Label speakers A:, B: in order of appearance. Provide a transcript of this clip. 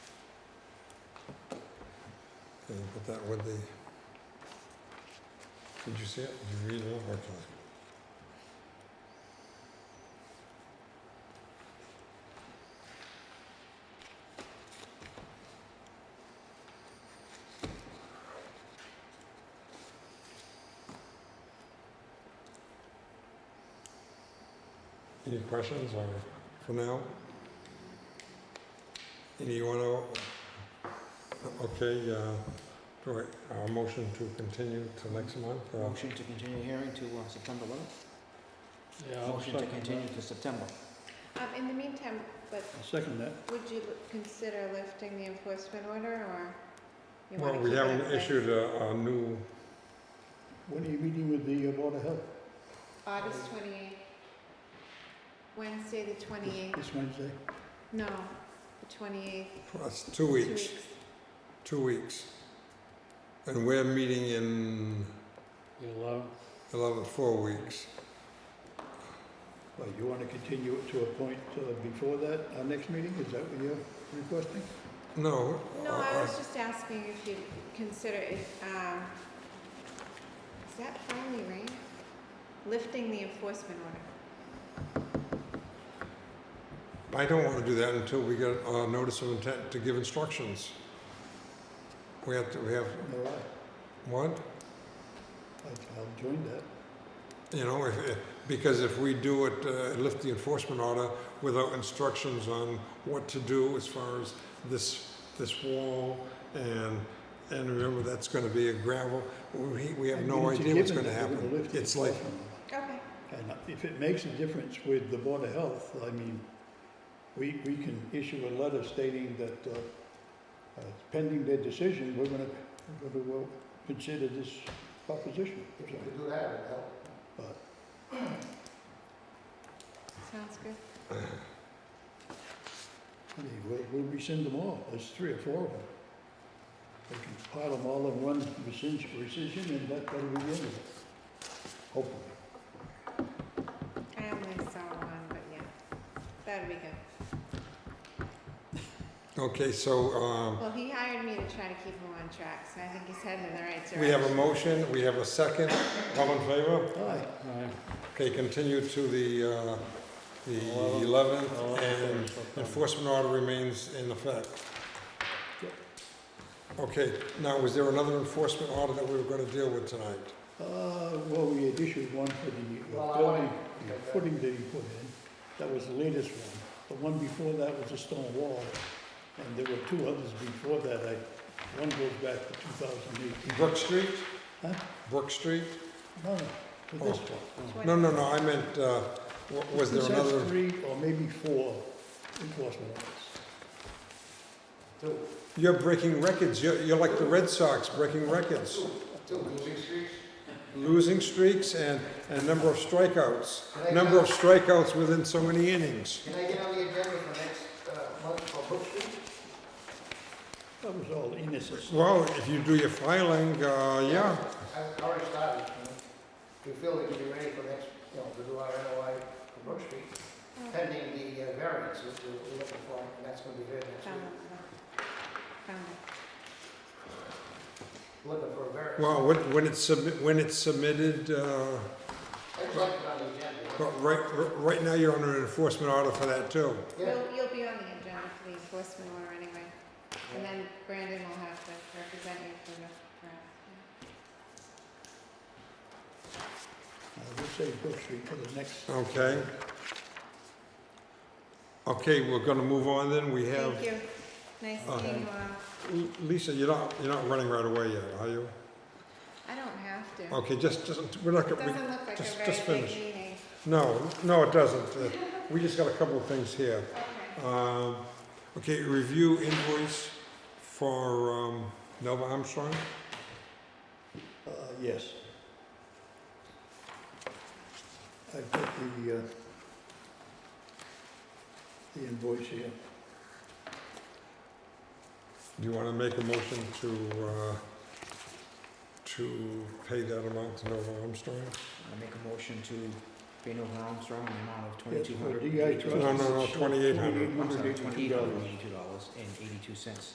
A: Can you put that with the? Did you see it? Did you read it over? Any questions or for now? Any you wanna, okay, uh, do I, our motion to continue to next month? uh,
B: Motion to continue the hearing to uh, September 11th?
C: Yeah, Uh, I'll
B: Motion to
C: second
B: continue
C: that.
B: to September.
D: Um, in the meantime, but
C: I'll second that.
D: would you consider lifting the enforcement order or? you wanna
A: Well, we
D: keep it
A: haven't
D: in place?
A: issued a, a new,
C: When are you meeting with the uh, Board of Health?
D: August twenty-eighth. Wednesday, the twenty-eighth,
C: This Wednesday?
D: no, the twenty-eighth,
A: that's two
D: two
A: weeks,
D: weeks.
A: two weeks. And we're meeting in
C: The eleventh.
A: eleven, four weeks.
C: Well, you want to continue it to a point uh, before that, our next meeting? Is that what you're requesting?
A: No.
D: No,
A: uh,
D: I was just asking if you'd consider if, um, is that finally right? Lifting the enforcement order.
A: I don't want to do that until we get a notice of intent to give instructions. We have to, we have,
C: No, I,
A: what?
C: I- I'll join that.
A: You know, if, if- because if we do it, uh, lift the enforcement order without instructions on what to do as far as this, this wall and, and remember, that's gonna be a gravel, we, we have
C: And
A: no
C: it's a
A: idea what's
C: given
A: gonna
C: that they're gonna
A: happen.
C: lift it.
A: It's like,
D: Okay,
C: And uh, if it makes a difference with the Board of Health, I mean, we, we can issue a letter stating that uh, uh, pending their decision, we're gonna, we're gonna uh, consider this proposition. or something.
E: do that, it'd help.
C: But
D: sounds good.
C: I mean, we'll, we'll rescind them all, there's three or four of them. We can pile them all in one rescind- rescission, and that, that'll be the end of it, hopefully.
D: I only saw one, but yeah, that'd be good.
A: okay, so, um,
D: Well, he hired me to try to keep him on track, so I think he's heading in the right direction.
A: we have a motion, we have a second, all in favor?
C: Aye.
A: Okay, continue to the, uh, the eleventh, and enforcement order remains in effect.
C: Yep.
A: Okay, now, was there another enforcement order that we were gonna deal with tonight?
C: Uh, well, we had issued one for the
E: Well,
C: uh,
E: I
C: building,
E: wanna-
C: the footing that he put in, that was the latest one. The one before that was a stone wall, and there were two others before that, I, one goes back to two thousand eighteen.
A: Brook Street?
C: Huh?
A: Brook Street?
C: No, no, for this one.
D: Which one?
A: No, no, no, I meant, uh, wa- was there
C: It says
A: another?
C: Three or maybe four enforcement orders.
E: Two,
A: You're breaking records, you're, you're like the Red Sox, breaking records.
E: two losing streaks?
A: Losing streaks and, and number of strikeouts. Number of strikeouts within so many innings.
E: Can I get on the agenda for next uh, month for Brook Street?
C: That was all innocent.
A: Well, if you do your filing, uh, yeah.
E: I already started, you know. Do you feel we can be ready for next, you know, to do our NOI for Brook Street, pending the uh, variances that we're looking for, and that's gonna be here next
D: Found
E: week.
D: it, found it.
E: Looking for a variance.
A: Well, when, when it's submit, when it's submitted, uh,
E: I'd like it on the agenda.
A: but right, right now you're under an enforcement order for that too.
E: Yeah,
D: You'll, you'll be on the agenda for the enforcement order anyway, and then Brandon will have to represent you for the draft.
C: I would say Brook Street for the next.
A: Okay. Okay, we're gonna move on then. We have,
D: Thank you, nice
A: Uh,
D: seeing you all.
A: L- Lisa, you're not, you're not running right away yet, are you?
D: I don't have to.
A: Okay, just, just, we're not
D: It
A: gonna,
D: doesn't look like
A: Oh, just-
D: a
A: just
D: very big
A: finish.
D: meeting.
A: we- no, no, it doesn't. Uh, We just got a couple of things here.
D: Okay,
A: Um, okay, review invoice for, um, Nova Armstrong.
C: Uh, yes. I put the, uh, the invoice here.
A: Do you wanna make a motion to, uh, to pay that amount to Nova Armstrong?
B: I make a motion to pay no harm, strong, in the amount of
C: Yes, for
B: twenty-two hundred.
C: DI trust.
A: No, no, no, 2,800.
B: I'm sorry,
C: $2,882.
B: twenty-eight hundred and eighty-two dollars and eighty-two cents.